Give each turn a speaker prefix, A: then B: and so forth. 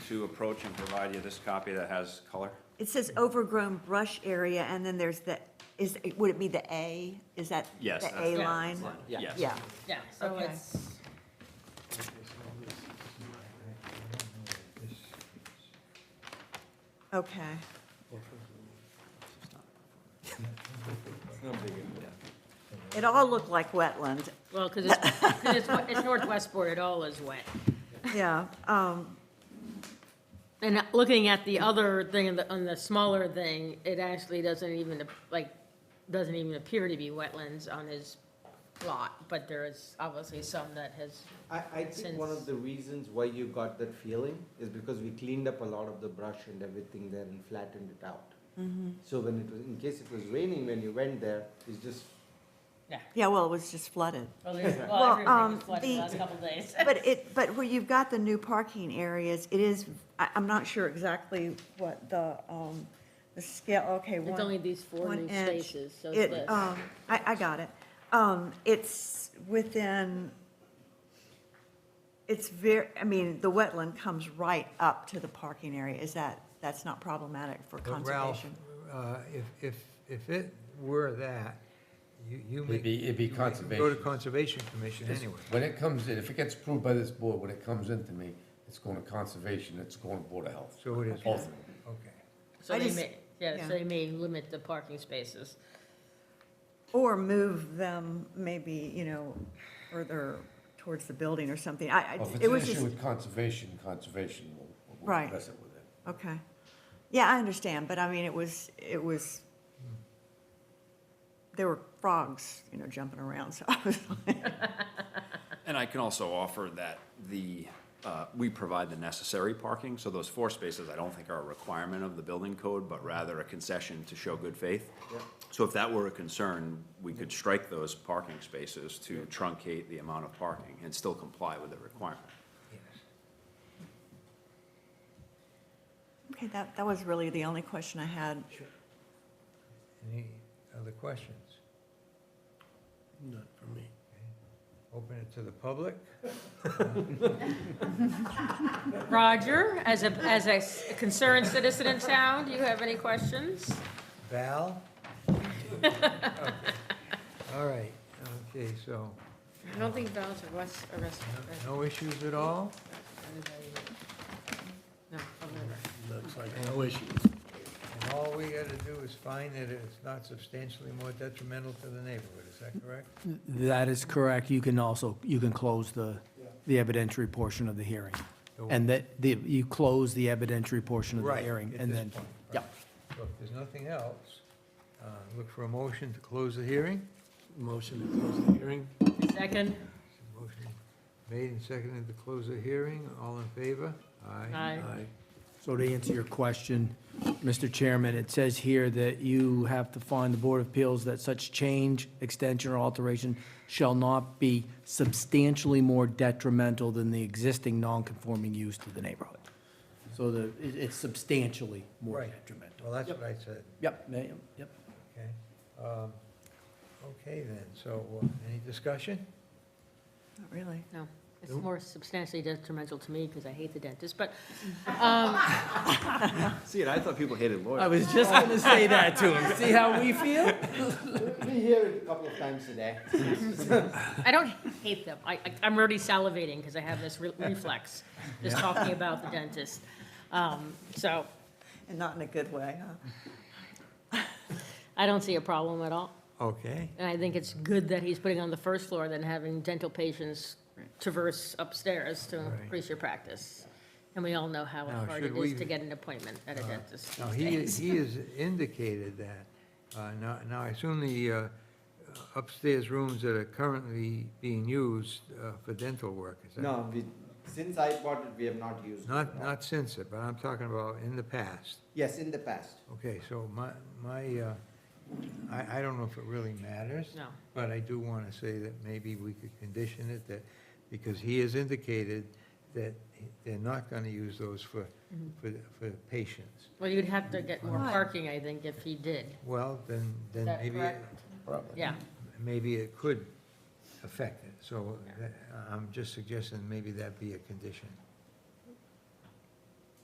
A: to approach and provide you this copy that has color?
B: It says overgrown brush area, and then there's the, is, would it be the A? Is that
A: Yes,
B: the
A: that's
B: A
A: the
B: line?
A: Yes.
B: Yeah,
C: Yeah, so
B: Okay.
C: it's,
B: okay. It all looked like wetland,
C: well, because it's, 'cause it's wa- it's Northwestport, it all is wet.
B: yeah. um,
C: And uh, looking at the other thing, on the- on the smaller thing, it actually doesn't even, ap- like, doesn't even appear to be wetlands on his lot, but there is obviously some that has,
D: I, I think one of
C: Since-
D: the reasons why you got that feeling is because we cleaned up a lot of the brush and everything there and flattened it out. So when it was, in case it was raining when you went there, it's just,
B: Yeah, well, it was just flooded.
C: well, there's,
B: Well,
C: well, everything
B: um,
C: is flooded the
B: the-
C: last couple of days.
B: But it, but where you've got the new parking areas, it is, I, I'm not sure exactly what the, um, the scale, okay, one.
C: It's only these four
B: one
C: new
B: inch.
C: spaces, so
B: It,
C: it's this.
B: um, I, I got it. Um, it's within, it's very, I mean, the wetland comes right up to the parking area. Is that, that's not problematic for
E: But Ralph,
B: conservation?
E: uh, if, if, if it were that, you, you may.
F: It'd be- it'd be
E: you may Go to
F: conservation.
E: Conservation Commission
F: It's-
E: anyway.
F: When it comes in, if it gets approved by this board, when it comes into me, it's going to conservation, it's going to Board of Health.
E: So it is,
F: All
E: okay.
F: three.
C: So
B: I
C: they
B: just-
C: may, yeah,
B: yeah.
C: so they may limit the parking spaces.
B: Or move them maybe, you know, further towards the building or something. I, I,
F: Well, If it's
B: it
F: an
B: was
F: issue
B: just,
F: with conservation, conservation will- will
B: Right.
F: address it with it.
B: okay. Yeah, I understand, but I mean, it was, it was, there were frogs, you know, jumping around, so I was like.
A: And I can also offer that the, uh, we provide the necessary parking, so those four spaces, I don't think are a requirement of the building code, but rather a concession to show good faith. So if that were a concern, we could strike those parking spaces to truncate the amount of parking and still comply with the requirement.
B: Okay, that, that was really the only question I had.
E: Any other questions? Not for me. Open it to the public?
C: Roger, as a, as a s- concerned citizen in town, do you have any questions?
E: Val? All right, okay, so,
C: I don't think Val's arrest, arrested.
E: no issues at all?
C: No, I'll never.
E: And all we gotta do is find that it's not substantially more detrimental to the neighborhood, is that correct?
G: That is correct. You can also, you can close the, the evidentiary portion of the hearing. And that, the, you close the evidentiary portion of the
E: Right,
G: hearing.
E: at
G: and
E: this
G: then
E: point,
G: yeah.
E: right. So if there's nothing else, uh, look for a motion to close the hearing.
H: Motion to close the hearing?
C: Second?
E: Motion Made and seconded to close the hearing, all in favor?
C: Aye.
G: So to answer your question, Mr. Chairman, it says here that you have to find the Board of Appeals that such change, extension, or alteration shall not be substantially more detrimental than the existing non-conforming use to the neighborhood. So the, it- it's substantially more
E: Right.
G: detrimental.
E: Well, that's what I said,
G: Yep, yeah, yep.
E: okay? Um, Okay then, so uh, any discussion?
B: Not really.
C: No, it's
E: Nope.
C: more substantially detrimental to me because I hate the dentist, but, um,
A: See, I thought people hated lawyers.
G: I was just gonna say that to him. See how we feel?
D: we hear it a couple of times a day.
C: I don't hate them. I, I- I'm already salivating because I have this re- reflex, just talking about the dentist. Um, so
B: And not in a good way, huh?
C: I don't see a problem at all.
E: Okay,
C: And I think it's good that he's putting on the first floor than having dental patients traverse upstairs to
E: Right.
C: increase your practice. And we all know how
E: Now,
C: hard
E: should
C: it is
E: we- Uh,
C: to get an appointment at a dentist
E: now
C: these
E: he,
C: days.
E: he has indicated that. Uh, Now, now I assume the uh, upstairs rooms that are currently being used uh, for dental work, is that?
D: No, we, since I bought it, we have not used it.
E: Not,
D: at all.
E: not since it, but I'm talking about in the past.
D: Yes, in the past.
E: Okay, so my, my, uh, I, I don't know if it really matters.
C: No.
E: But I do want to say that maybe we could condition it that, because he has indicated that they're not going to use those for,
C: Mm-hmm.
E: for, for patients.
C: Well, you'd have to get more
B: Why?
C: parking, I think, if he did.
E: Well, then, then
C: that
E: maybe, it-
C: correct?
F: Probably.
C: Yeah,
E: maybe it could affect it. So that- I'm just suggesting maybe that be a condition.